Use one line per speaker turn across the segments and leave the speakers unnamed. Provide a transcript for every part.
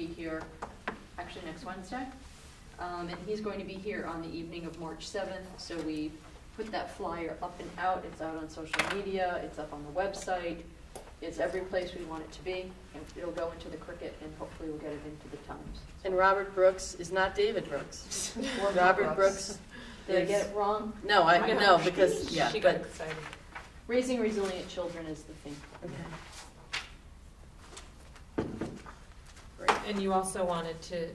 here, actually next Wednesday. Um, And he's going to be here on the evening of March 7th, so we put that flyer up and out. It's out on social media, it's up on the website, it's every place we want it to be. And It'll go into the Cricket and hopefully we'll get it into the Times.
And Robert Brooks is not David Brooks. Robert Brooks.
Did I get
is-
it wrong?
No, I, no, because, yeah,
She got
but,
excited.
Raising resilient children is the thing.
okay.
And you also wanted to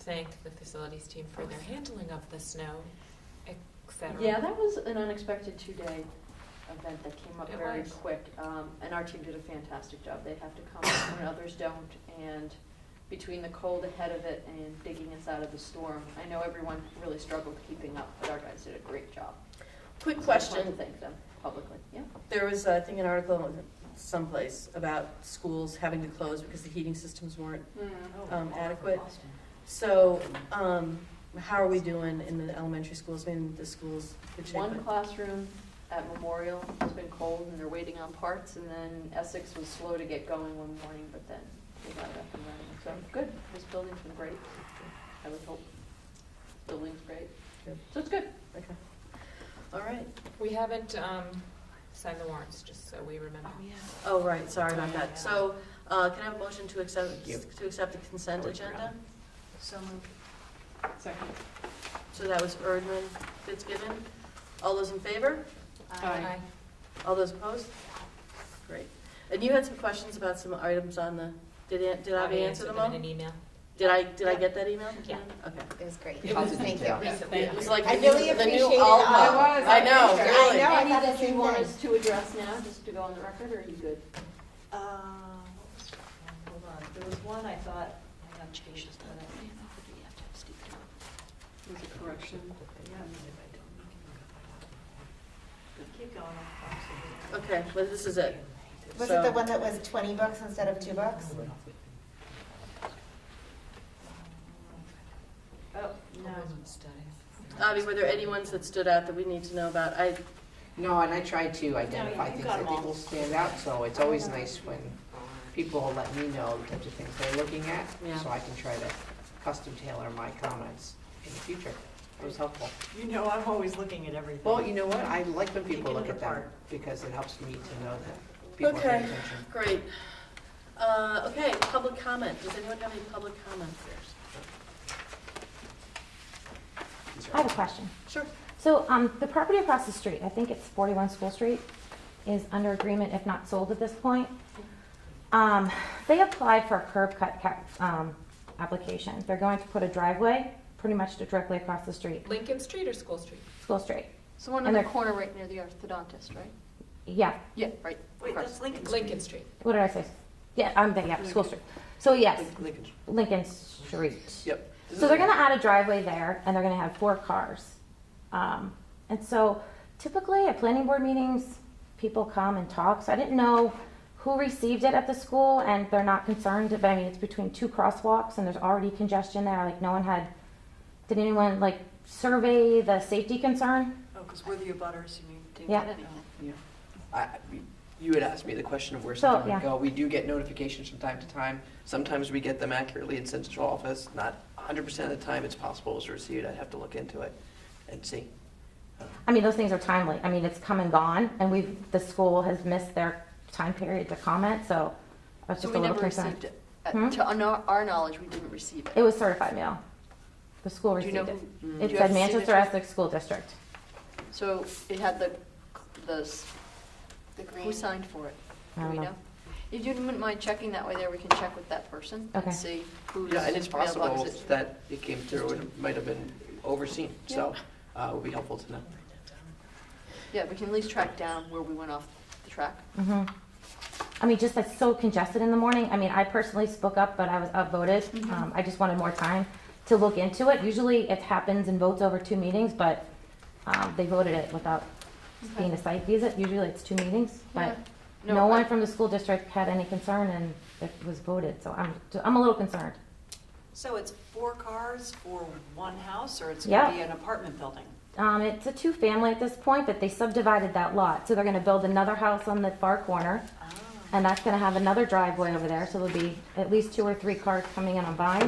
thank the facilities team for their handling of the snow, et cetera.
Yeah, that was an unexpected two-day event that came up
It
very
was.
quick. Um, and our team did a fantastic job. They have to come when others don't. And between the cold ahead of it and digging us out of the storm, I know everyone really struggled keeping up, but our guys did a great job.
Quick
So I just wanted
question,
to Thank them publicly, yeah.
there was, I think, an article someplace about schools having to close because the heating systems weren't um, adequate. So, um, how are we doing in the elementary schools, I mean, the schools? the shape
One
of-
classroom at Memorial has been cold and they're waiting on parts, and then Essex was slow to get going one morning, but then they got it up and running. So, good, this building's been great, I would hope. Building's great,
Good.
so it's good.
Okay. All right,
We haven't um, signed the warrants, just so we remember.
oh, right, sorry about that. So, uh, can I have a motion to accept, to accept the consent agenda?
So moved. Second.
So that was Erdman, Fitzgibbon. All those in favor?
Aye.
All those opposed? Great. And you had some questions about some items on the, did, An- did I answer them
In
all?
an email.
Did I, did I get that email?
Yeah.
Okay.
It was great.
It was
Thank you.
detailed.
It was like
I
the new-
really
the new
appreciated
Alma.
all. It was,
I
I
know,
appreciate it.
really.
I know.
Any
thought
that
the
you
same
want
thing.
us to address now, just to go on the record, or are you good?
Uh, Hold on, there was one I thought, I got changed, but I-
Was it correction?
keep going. I'll find
Okay, well, this is it.
something.
Was
So-
it the one that was twenty bucks instead of two bucks?
Oh, no.
Avi, were there any ones that stood out that we need to know about? I,
No, and I try to identify
you
things
got
I
'em
think
all.
will stand out, so it's always nice when people will let me know the types of things they're looking at,
Yeah.
so I can try to custom tailor my comments in the future. It was helpful.
You know, I'm always looking at everything.
Well, you know what, I like when people
Taking
look
it
at them,
apart.
because it helps me to know that people are paying
Okay.
attention.
great. Uh, okay, public comment. Does anyone have any public comments?
These are-
I have a question.
Sure.
So um, the property across the street, I think it's 41 School Street, is under agreement if not sold at this point. Um, They applied for a curb cut ca- um, application. They're going to put a driveway pretty much directly across the street,
Lincoln Street or School Street?
School Street.
It's the one
And
in the
they're-
corner right near the orthodontist, right?
Yeah,
Yeah, right.
Wait,
across.
that's Lincoln Street.
Lincoln Street.
what did I say? Yeah, I'm thinking, yeah, School Street. So yes,
Lincoln.
Lincoln Street.
Yep.
So they're gonna add a driveway there, and they're gonna have four cars. Um, and so typically at planning board meetings, people come and talk, so I didn't know who received it at the school, and they're not concerned, but I mean, it's between two crosswalks, and there's already congestion there, like, no one had, did anyone, like, survey the safety concern?
Oh, because we're the abutters, you mean? David?
Yeah.
Oh.
Yeah. I- I- You had asked me the question of where
So,
something would
yeah.
go. We do get notifications from time to time. Sometimes we get them accurately in central office. Not 100% of the time it's possible it's received. I'd have to look into it and see.
I mean, those things are timely, I mean, it's come and gone, and we've, the school has missed their time period to comment, so I
So
was just a
we
little
never
concerned.
received it. Uh,
Hmm?
To our our knowledge, we didn't receive it.
It was certified mail, the school
Do you
received
know
it.
who- do
It
you have
said
the
Manchester
signature?
Essex School District.
So it had the, the, s-
The green.
who signed for it?
I
Do
don't
we
know.
know? If you wouldn't mind checking that way there, we can check with that person
Okay.
and see who's.
Yeah, and it's possible
mailbox it-
that it came through and it might have been overseen. So uh, it would be helpful to know.
Yeah, we can at least track down where we went off the track.
Mhm. I mean, just that's so congested in the morning. I mean, I personally spoke up, but I was outvoted.
Mhm.
Um, I just wanted more time to look into it. Usually it happens and votes over two meetings, but, um, they voted it without being a site visit. Usually it's two meetings, but
Yeah.
no
I-
one from the school district had any concern and it was voted, so I'm, so I'm a little concerned.
So it's four cars for one house, or it's
Yeah.
going to be an apartment building?
Um, it's a two-family at this point, but they subdivided that lot, so they're gonna build another house on the far corner.
Ah.
And that's gonna have another driveway over there, so there'll be at least two or three cars coming in on Vine.